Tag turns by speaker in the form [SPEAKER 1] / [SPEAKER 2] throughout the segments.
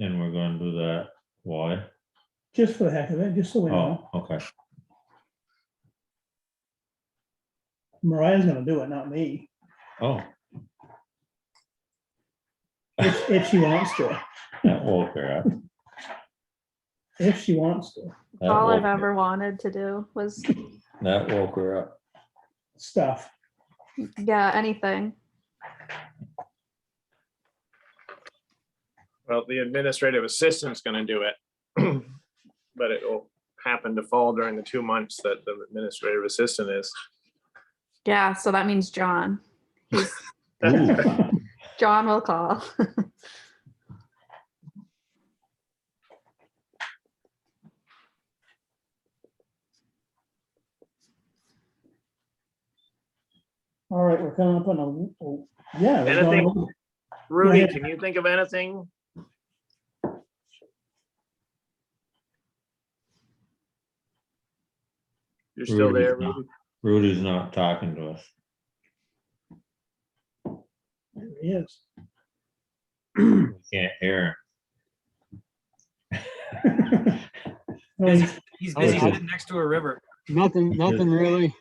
[SPEAKER 1] And we're gonna do that, why?
[SPEAKER 2] just for the heck of it, just so we know.
[SPEAKER 1] Oh, okay,
[SPEAKER 2] Mariah's gonna do it, not me,
[SPEAKER 1] oh,
[SPEAKER 2] if, if she wants to,
[SPEAKER 1] that woke her up.
[SPEAKER 2] if she wants to,
[SPEAKER 1] That
[SPEAKER 3] All
[SPEAKER 1] woke
[SPEAKER 3] I've
[SPEAKER 1] her-
[SPEAKER 3] ever wanted to do was,
[SPEAKER 1] That woke her up.
[SPEAKER 2] stuff.
[SPEAKER 3] yeah, anything.
[SPEAKER 4] Well, the administrative assistant's gonna do it. But it will happen to fall during the two months that the administrative assistant is.
[SPEAKER 3] Yeah, so that means John. John will call.
[SPEAKER 2] All right, we're coming up on a, oh, yeah. we're
[SPEAKER 4] Anything-
[SPEAKER 2] going-
[SPEAKER 4] Rudy,
[SPEAKER 2] ahead.
[SPEAKER 4] can you think of anything? You're still
[SPEAKER 1] Rudy's
[SPEAKER 4] there,
[SPEAKER 1] not.
[SPEAKER 4] Rudy?
[SPEAKER 1] Rudy's not talking to us.
[SPEAKER 2] there he is.
[SPEAKER 1] We Can't hear
[SPEAKER 2] No, he's-
[SPEAKER 5] He's
[SPEAKER 1] Oh,
[SPEAKER 5] busy
[SPEAKER 1] okay.
[SPEAKER 5] sitting next to a river.
[SPEAKER 6] Nothing,
[SPEAKER 1] Because-
[SPEAKER 6] nothing really.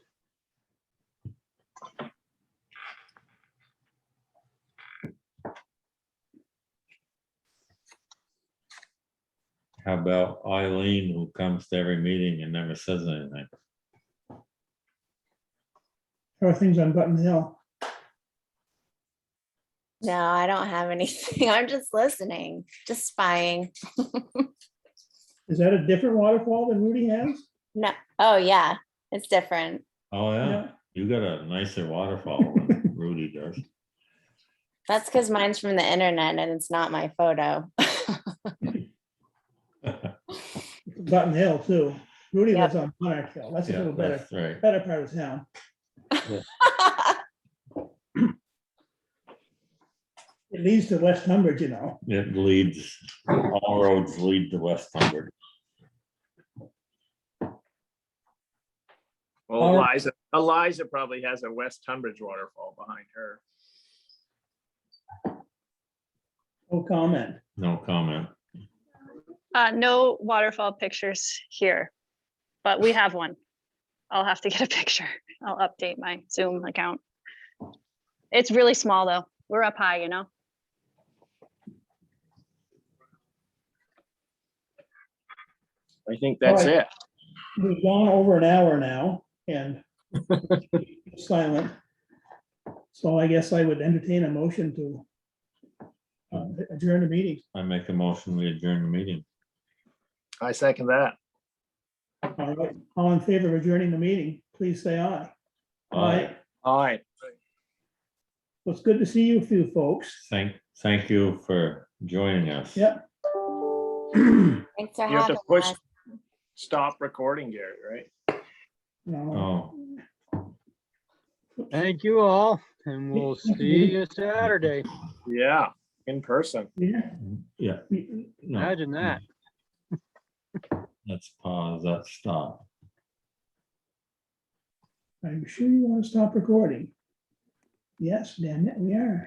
[SPEAKER 1] him. How about Eileen, who comes to every meeting and never says anything?
[SPEAKER 2] Everything's on Button Hill.
[SPEAKER 7] No, I don't have anything. I'm just listening, just spying.
[SPEAKER 2] Is that a different waterfall than Rudy has?
[SPEAKER 7] No, oh yeah, it's different.
[SPEAKER 1] Oh, yeah, you got a nicer waterfall than Rudy does.
[SPEAKER 7] That's because mine's from the internet and it's not my photo.
[SPEAKER 2] Button Hill too. Rudy
[SPEAKER 7] Yep.
[SPEAKER 2] lives on Monarch Hill. That's a
[SPEAKER 1] Yeah,
[SPEAKER 2] little better,
[SPEAKER 1] that's right.
[SPEAKER 2] better part of town. It leads to West Humbridge, you know.
[SPEAKER 1] It leads, all roads lead to West Hundred.
[SPEAKER 4] Well, Eliza, Eliza probably has a West Tunbridge waterfall behind her.
[SPEAKER 2] No comment.
[SPEAKER 1] No comment.
[SPEAKER 8] Uh, no waterfall pictures here, but we have one. I'll have to get a picture. I'll update my Zoom account. It's really small though. We're up high, you know?
[SPEAKER 4] I think that's
[SPEAKER 2] Alright.
[SPEAKER 4] it.
[SPEAKER 2] We've gone over an hour now and silent. So I guess I would entertain a motion to uh, adjourn the meeting.
[SPEAKER 1] I make a motion, we adjourn the meeting.
[SPEAKER 4] I second that.
[SPEAKER 2] All right. All in favor of adjourning the meeting, please say aye.
[SPEAKER 1] Aye.
[SPEAKER 4] All right.
[SPEAKER 2] Well, it's good to see you few folks.
[SPEAKER 1] Thank, thank you for joining us.
[SPEAKER 2] Yep.
[SPEAKER 7] Thanks for
[SPEAKER 4] You have to
[SPEAKER 7] having
[SPEAKER 4] push,
[SPEAKER 7] us.
[SPEAKER 4] stop recording, Gary, right?
[SPEAKER 2] No,
[SPEAKER 1] Oh,
[SPEAKER 6] Thank you all, and we'll see you Saturday.
[SPEAKER 4] Yeah, in person.
[SPEAKER 2] yeah,
[SPEAKER 1] yeah,
[SPEAKER 2] we-
[SPEAKER 1] no,
[SPEAKER 6] Imagine that.
[SPEAKER 1] let's pause, let's stop.
[SPEAKER 2] Are you sure you want to stop recording? Yes, damn it, we are.